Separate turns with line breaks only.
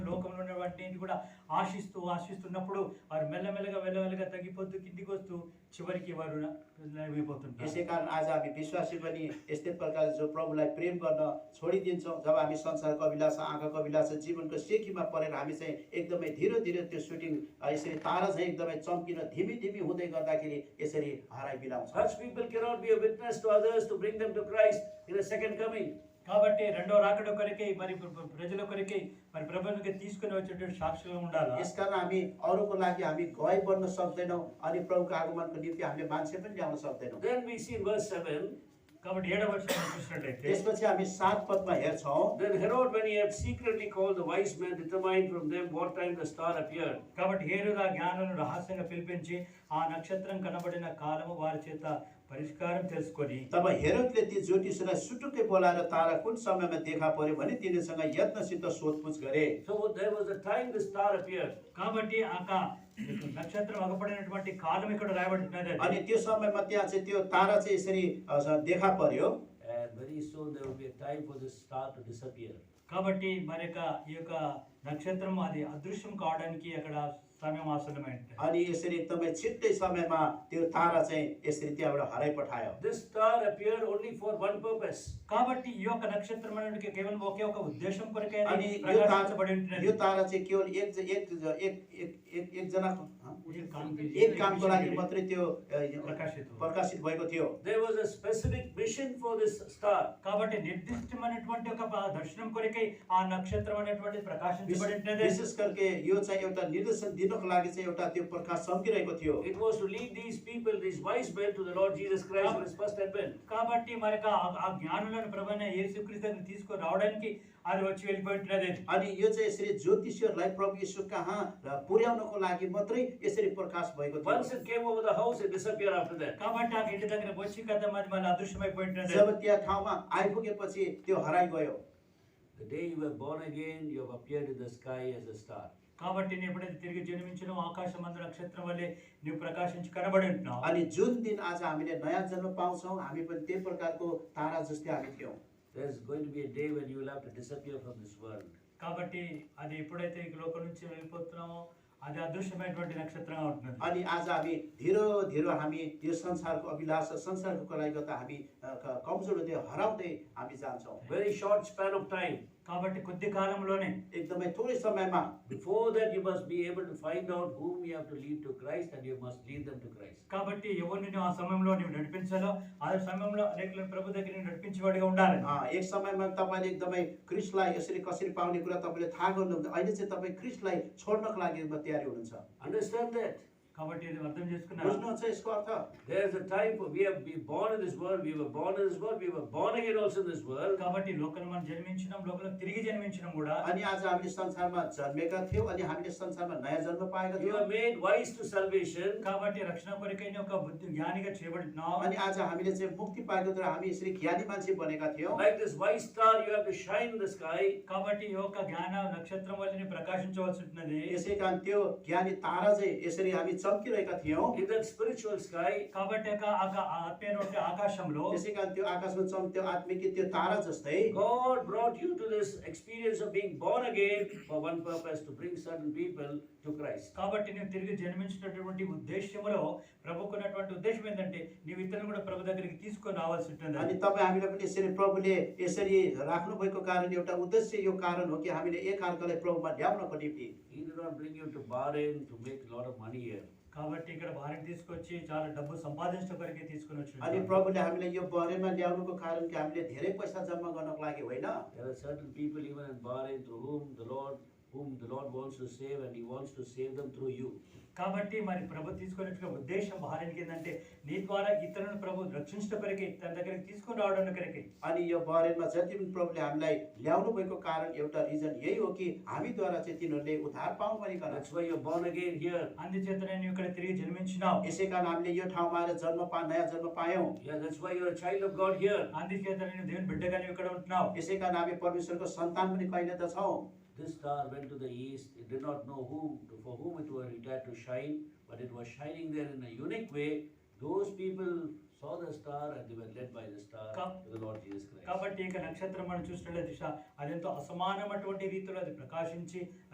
వాటిని కూడా ఆశిస్తూ ఆశిస్తున్నప్పుడు వారు మెల్లమెల్లగా మెల్లమెల్లగా తగ్గిపోతూ కిందికి వస్తూ చివరికి వారు నలిగిపోతుంటారు
यसै कारण आज हामी विश्वासी पनि यस्तै प्रकारले जो प्रभुलाई प्रेम गर्न छोडिदिन्छौँ जब हामी संसारको अभिलाषा आँखाको अभिलाषा जीवनको सेकीमा परेर हामी चाहिँ एकदमै धीरे धीरे त्यो सुटिङ यसरी तारा चाहिँ एकदमै चम्किन धिमी धिमी हुँदै गर्दाखेरि यसरी हराइ बिलाउँछ
Such people cannot be a witness to others to bring them to Christ in the second coming.
కాబట్టి రెండో రాకడ కొరకై మరి ప్ర- ప్ర- ప్రజల కొరకై మరి ప్రభుత్వం తీసుకుని వచ్చేటువంటి సాక్షులుగా ఉండాలి
यसकारण हामी अरूको लागि हामी गए बन्न सक्दैनौँ अनि प्रभुको आगमनको निम्ति हामीले मान्छे पनि ल्याउन सक्दैनौँ
Then we see in verse 7
కాబట్టి ఏడవ వర్షం చూసినట్లయితే
त्यसपछि हामी सात पदमा हेर्छौँ
Then Herod, when he had secretly called the wise men, determined from them what time the star appeared.
కాబట్టి హేరుద జ్ఞానులను రహస్యంగా పిలిపించి ఆ నక్షత్రం కనబడిన కాలము వారి చేత పరిష్కారం తెలుసుకొని
तब हेरोदले ती ज्योतिषलाई सुटुक्कै बोलाएर तारा कुन समयमा देखा पर्यो भने तिनीसँग यत्नसित सोधपुछ गरे
So there was a time the star appeared.
కాబట్టి ఆ కా- నక్షత్రం అగపడినటువంటి కాలం ఇక్కడ రాయబడుతున్నది
अनि त्यो समयमा त्यहाँ चाहिँ त्यो तारा चाहिँ यसरी अ, स- देखा पर्यो
And very soon there will be a time for this star to disappear.
కాబట్టి మరి యొక్క ఈ యొక్క నక్షత్రం అది అదృశ్యం కావడానికి అక్కడ సమయం ఆసనమైంది
अनि यसरी एकदमै छिट्टै समयमा त्यो तारा चाहिँ यसरी त्यहाँबाट हराइपठायो
This star appeared only for one purpose.
కాబట్టి ఈ యొక్క నక్షత్రం అనేది కేవలం ఒకే ఒక ఉద్దేశం కొరకే అది
अनि यो
ప్రకాశించబడి
तारा
ఉంటుంది
यो तारा चाहिँ केवल एक ज- एक ज- एक- एक- एक- एकजनाको हँ?
ఇది కాంతి-
एक कामको लागि मात्रै त्यो अ,
प्रकाशित हो।
प्रकाशित भएको थियो
There was a specific mission for this star.
కాబట్టి నిర్దిష్టమైనటువంటి ఒక దర్శనం కొరకే ఆ నక్షత్రం అనేటువంటిది ప్రకాశించబడి
विशेष
ఉంటుంది
विशेष करके यो चाहिँ एउटा निर्देशन दिनको लागि चाहिँ एउटा त्यो प्रकाश चम्किरहेको थियो
It was to lead these people, these wise men, to the Lord Jesus Christ for his first advent.
కాబట్టి మరి యొక్క ఆ- ఆ జ్ఞానులను ప్రభైన యేసుక్రీస్తుని తీసుకొని రావడానికి అది వచ్చి వెళ్ళిపోయింటున్నది
अनि यो चाहिँ यसरी ज्योतिषहरूलाई प्रभु यीशु कहाँ र पुर्याउनको लागि मात्रै यसरी प्रकाश भएको थियो
Once it came over the house, it disappeared after that.
కాబట్టి ఆ ఇంటి దగ్గర వచ్చి కదా మరి మళ్ళీ అదృశ్యమైపోయింటున్నది
जब त्यहाँ ठाउँमा आइपुगेपछि त्यो हराइगयो
The day you were born again, you have appeared in the sky as a star.
కాబట్టి నేను ఎప్పుడైతే తిరిగి జన్మించినో ఆకాశం అందు నక్షత్రం వల్లే నువ్వు ప్రకాశించి కనబడి ఉంటున్నావు
अनि जुन दिन आज हामीले नयाँ जन्म पाउँछौँ हामी पनि त्यही प्रकारको तारा जस्तै हामी थियौँ
There's going to be a day when you will have to disappear from this world.
కాబట్టి అది ఎప్పుడైతే ఈ లోకం నుంచి వెళ్ళిపోతున్నామో అది అదృశ్యమైనటువంటి నక్షత్రంగా ఉంటున్నది
अनि आज हामी धिरो धिरो हामी यो संसारको अभिलाषा संसारको कलाई गर्दा हामी अ, क- कमजोर हुँदै हराउँदै हामी जान्छौँ
Very short span of time.
కాబట్టి కొద్ది కాలంలోనే
एकदमै थोरै समयमा
Before that, you must be able to find out whom you have to lead to Christ and you must lead them to Christ.
కాబట్టి ఎవరిని నువ్వు ఆ సమయంలో నువ్వు నడిపించాలో ఆ సమయంలో అనేకులను ప్రభు దగ్గర నువ్వు నడిపించేవాడిగా ఉండాలి
अ, एक समयमा तपाईँले एकदमै क्रिसलाई यसरी कसरी पाउने कुरा तपाईँले थाहा गर्नुहुन्छ अहिले चाहिँ तपाईँ क्रिसलाई छोड्नको लागि एकदम तयारी हुनुहुन्छ
Understand that.
కాబట్టి ఇది అర్థం చేసుకున్నారు
बुझ्नुहुन्छ यसको अर्थ
There's a time for we have been born in this world, we were born in this world, we were born again also in this world.
కాబట్టి లోకల్ మనం జన్మించినాం లోకల్ తిరిగి జన్మించినాం కూడా
अनि आज हामीले संसारमा जन्मेका थियौँ अनि हामीले संसारमा नयाँ जन्म पाएका
You are
थियौँ
made wise to salvation.
కాబట్టి రక్షణ కొరకైన ఒక బుద్ధి జ్ఞానిగా చేయబడుతున్నాం
अनि आज हामीले चाहिँ मुक्ति पाएको तर हामी यसरी ज्ञानी मान्छे बनेका थियौँ
Like this wise star, you have to shine in the sky.
కాబట్టి ఈ యొక్క జ్ఞాన నక్షత్రం వల్లని ప్రకాశించవలసి ఉంటున్నది
यसै कारण त्यो ज्ञानी तारा चाहिँ यसरी हामी चम्किरहेका थियौँ
In that spiritual sky,
కాబట్టి ఆ ఆ- ఆ ఆత్మీయటువంటి ఆకాశంలో
त्यसै कारण त्यो आकाशमा चम्क्यो आत्मिक त्यो तारा जस्तै
God brought you to this experience of being born again for one purpose to bring certain people to Christ.
కాబట్టి నువ్వు తిరిగి జన్మించినటువంటి ఉద్దేశ్యములో ప్రభుకున్నటువంటి ఉద్దేశం ఏంటంటే నీవు ఇతరులను కూడా ప్రభు దగ్గరికి తీసుకొని రావాల్సి
अनि
ఉంటుంది
तपाईँ हामीलाई पनि यसरी प्रभुले यसरी राख्नुभएको कारण एउटा उद्देश्य यो कारण हो कि हामीले एकअर्कालाई प्रभुमा ल्याउनको निम्ति
He did not bring you to Bahrain to make a lot of money here.
కాబట్టి ఇక్కడ భార్యను తీసుకొచ్చి చాలా డబ్బు సంపాదించడం కొరకే తీసుకొని
अनि
వచ్చిన
प्रभुले हामीलाई यो बरेमा ल्याउनुको कारण कि हामीले धेरै पैसा जम्मा गर्नको लागि होइन
There are certain people even in Bahrain through whom the Lord whom the Lord wants to save and he wants to save them through you.
కాబట్టి మరి ప్రభు తీసుకునే ఉద్దేశం భార్యకి ఏంటంటే నీ ద్వారా ఇతరులను ప్రభు రక్షించడం కొరకే తన దగ్గరికి తీసుకొని రావడం కొరకే
अनि यो बरेनमा जति पनि प्रभुले हामीलाई ल्याउनु भएको कारण एउटा रिजन यही हो कि हामीद्वारा चाहिँ तिनीहरूले उद्धार पाउँ भनिकन
That's why you're born again here.
అందుచేత నేను ఇక్కడ తిరిగి జన్మించినావు
यसै कारण हामीले यो ठाउँमा आएर जन्म पा नयाँ जन्म पायौँ
Yeah, that's why you're a child of God here.
అందుచేత నేను దేవుని బిడ్డగా నువ్వు ఇక్కడ ఉంటున్నావు
यसै कारण हामी परमेश्वरको सन्तान पनि कहिले त छौँ
This star went to the east. It did not know whom for whom it was it had to shine, but it was shining there in a unique way. Those people saw the star and they were led by the star
Come.
to the Lord Jesus Christ.
కాబట్టి ఇక నక్షత్రం మనం చూసినట్లయితే దిశ అదెంతో అసమానమైనటువంటి రీతిలో అది ప్రకాశించి